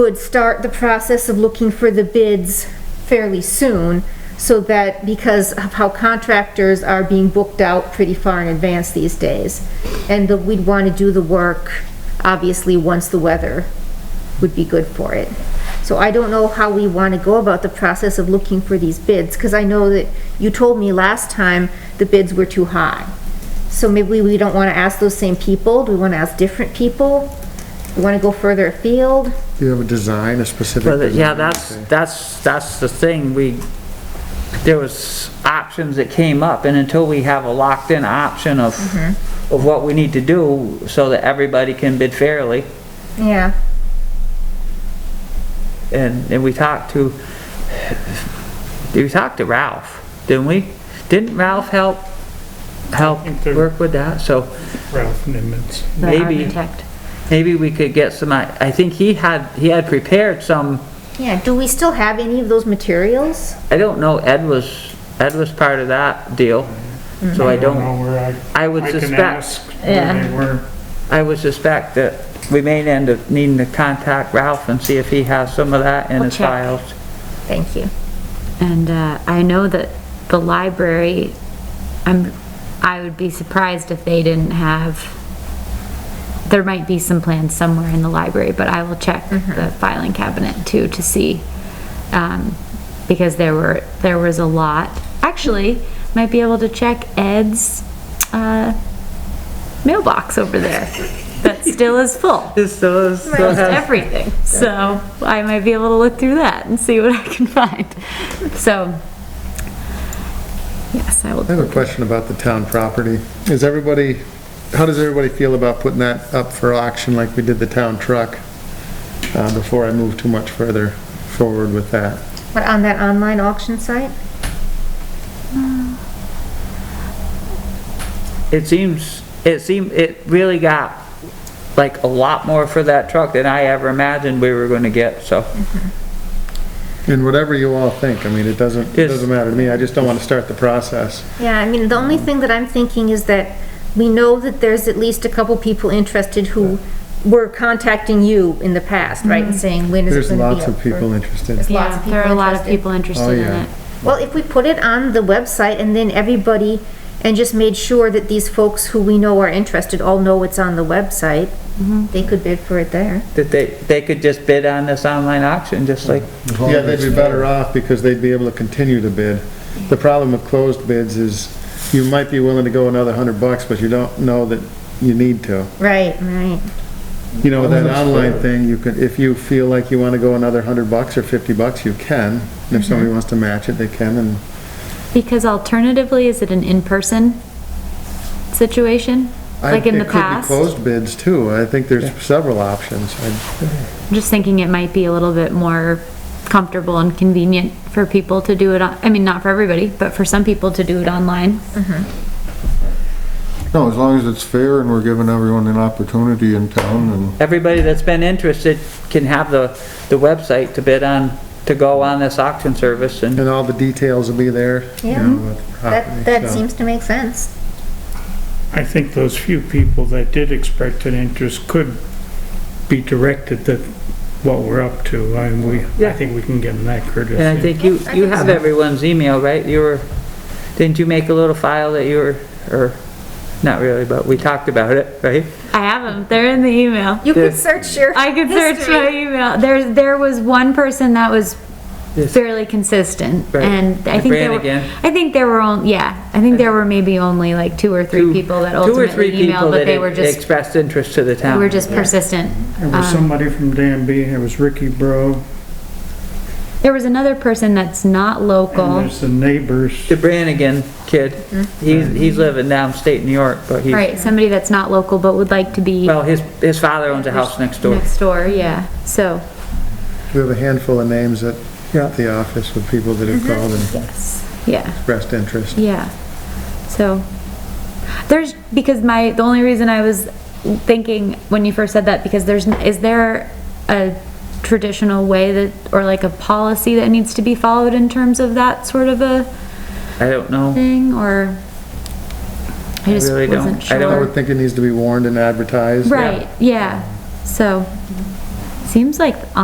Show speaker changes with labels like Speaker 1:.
Speaker 1: would start the process of looking for the bids fairly soon, so that, because of how contractors are being booked out pretty far in advance these days, and that we'd want to do the work, obviously, once the weather would be good for it. So I don't know how we want to go about the process of looking for these bids, because I know that you told me last time the bids were too high. So maybe we don't want to ask those same people, do we want to ask different people? We want to go further afield?
Speaker 2: Do you have a design, a specific?
Speaker 3: Well, yeah,
Speaker 2: design?
Speaker 3: that's,
Speaker 2: Okay.
Speaker 3: that's, that's the thing, we, there was options that came up, and until we have a locked-in option of, of what we need to do, so that everybody can bid fairly,
Speaker 1: Yeah,
Speaker 3: and, and we talked to, we talked to Ralph, didn't we? Didn't Ralph help, help
Speaker 4: think they're-
Speaker 3: work with that, so
Speaker 4: Ralph Nimitz.
Speaker 1: the
Speaker 3: maybe,
Speaker 1: architect.
Speaker 3: maybe we could get some, I, I think he had, he had prepared some,
Speaker 1: Yeah, do we still have any of those materials?
Speaker 3: I don't know, Ed was, Ed was part of that deal, so I don't.
Speaker 4: know where I,
Speaker 3: I would
Speaker 4: I can
Speaker 3: suspect,
Speaker 4: ask where they were.
Speaker 3: I would suspect that we may end up needing to contact Ralph and see if he has some of that in
Speaker 5: We'll
Speaker 3: his
Speaker 5: check.
Speaker 3: files.
Speaker 1: Thank you.
Speaker 5: And uh, I know that the library, I'm, I would be surprised if they didn't have, there might be some plans somewhere in the library, but I will check the filing cabinet too to see. um, Because there were, there was a lot. Actually, might be able to check Ed's uh, mailbox over there that still is full.
Speaker 3: This does,
Speaker 5: Almost everything. So I might be able to look through that and see what I can find. So, yes, I will.
Speaker 2: I have a question about the town property. Is everybody, how does everybody feel about putting that up for auction like we did the town truck? Uh, before I move too much further forward with that.
Speaker 1: But on that online auction site?
Speaker 3: it seems, it seemed, it really got like a lot more for that truck than I ever imagined we were gonna get, so.
Speaker 2: And whatever you all think, I mean, it doesn't, it
Speaker 3: Yes.
Speaker 2: doesn't matter to me, I just don't want to start the process.
Speaker 1: Yeah, I mean, the only thing that I'm thinking is that we know that there's at least a couple people interested who were contacting you in the past, right? And saying, when is it
Speaker 2: Mm-hmm. There's
Speaker 1: gonna be
Speaker 2: lots of
Speaker 1: up for-"
Speaker 2: people interested.
Speaker 1: There's lots of
Speaker 5: Yeah,
Speaker 1: people
Speaker 5: there are a lot of
Speaker 1: interested.
Speaker 5: people interested in
Speaker 2: Oh, yeah.
Speaker 5: it.
Speaker 1: Well, if we put it on the website and then everybody, and just made sure that these folks who we know are interested all know it's on the website,
Speaker 2: Mm-hmm.
Speaker 1: they could bid for it there.
Speaker 3: That they, they could just bid on this online auction, just like,
Speaker 2: Yeah, they'd be better off because they'd be able to continue to bid. The problem with closed bids is you might be willing to go another hundred bucks, but you don't know that you need to.
Speaker 1: Right, right.
Speaker 2: You know, that
Speaker 6: That's
Speaker 2: online
Speaker 6: fair.
Speaker 2: thing, you could, if you feel like you wanna go another hundred bucks or fifty bucks, you can. And if
Speaker 6: Mm-hmm.
Speaker 2: somebody wants to match it, they can, and
Speaker 5: Because alternatively, is it an in-person situation?
Speaker 2: I, it
Speaker 5: Like in the
Speaker 2: could be
Speaker 5: past?
Speaker 2: closed bids too. I think there's several options. I-
Speaker 5: I'm just thinking it might be a little bit more comfortable and convenient for people to do it, on- I mean, not for everybody, but for some people to do it online.
Speaker 6: No, as long as it's fair and we're giving everyone an opportunity in town and
Speaker 3: everybody that's been interested can have the, the website to bid on, to go on this auction service and
Speaker 2: And all the details will be there. you
Speaker 1: Yeah.
Speaker 2: know, with the property,
Speaker 1: That, that
Speaker 2: so.
Speaker 1: seems to make sense.
Speaker 4: I think those few people that did expect an interest could be directed that what we're up to. I, we, I
Speaker 3: Yeah.
Speaker 4: think we can give them that courtesy.
Speaker 3: And I think you,
Speaker 1: I
Speaker 3: you
Speaker 1: think
Speaker 3: have
Speaker 1: so.
Speaker 3: everyone's email, right? You were, didn't you make a little file that you were, or, not really, but we talked about it, right?
Speaker 5: I have them, they're in the email.
Speaker 1: You could
Speaker 3: Yeah.
Speaker 1: search your.
Speaker 5: I could search
Speaker 1: history.
Speaker 5: my email. There, there was one person that was
Speaker 3: Yes.
Speaker 5: fairly consistent,
Speaker 3: Right.
Speaker 5: and I
Speaker 3: Like
Speaker 5: think there
Speaker 3: Brannigan.
Speaker 5: were, I think there were only, yeah, I think there were maybe only like two or three
Speaker 3: Two-
Speaker 5: people that
Speaker 3: Two or three
Speaker 5: ultimately
Speaker 3: people
Speaker 5: emailed, but
Speaker 3: that
Speaker 5: they were
Speaker 3: e-
Speaker 5: just,
Speaker 3: expressed interest to the
Speaker 5: they
Speaker 3: town.
Speaker 5: were just persistent.
Speaker 4: There was
Speaker 5: um,
Speaker 4: somebody from Danby, there was Ricky Bro,
Speaker 5: There was another person that's not
Speaker 4: and
Speaker 5: local,
Speaker 4: there's the neighbors.
Speaker 3: The Brannigan kid, he's, he's living downstate New York, but he,
Speaker 5: Hmm? right, somebody that's not local but would like to be
Speaker 3: well, his, his father owns a house next door.
Speaker 5: next door, yeah, so,
Speaker 2: We have a handful of names at the office with people that
Speaker 5: Mm-hmm.
Speaker 2: have called and
Speaker 5: yeah.
Speaker 2: expressed interest.
Speaker 5: Yeah. So there's because my the only reason I was thinking when you first said that because there's n- is there a traditional way that or like a policy that needs to be followed in terms of that sort of a
Speaker 3: I don't know,
Speaker 5: thing or I just
Speaker 3: really don't.
Speaker 5: wasn't
Speaker 3: I
Speaker 5: sure.
Speaker 3: don't-
Speaker 2: I would think it needs to be warned and advertised.
Speaker 5: right. Yeah. So seems like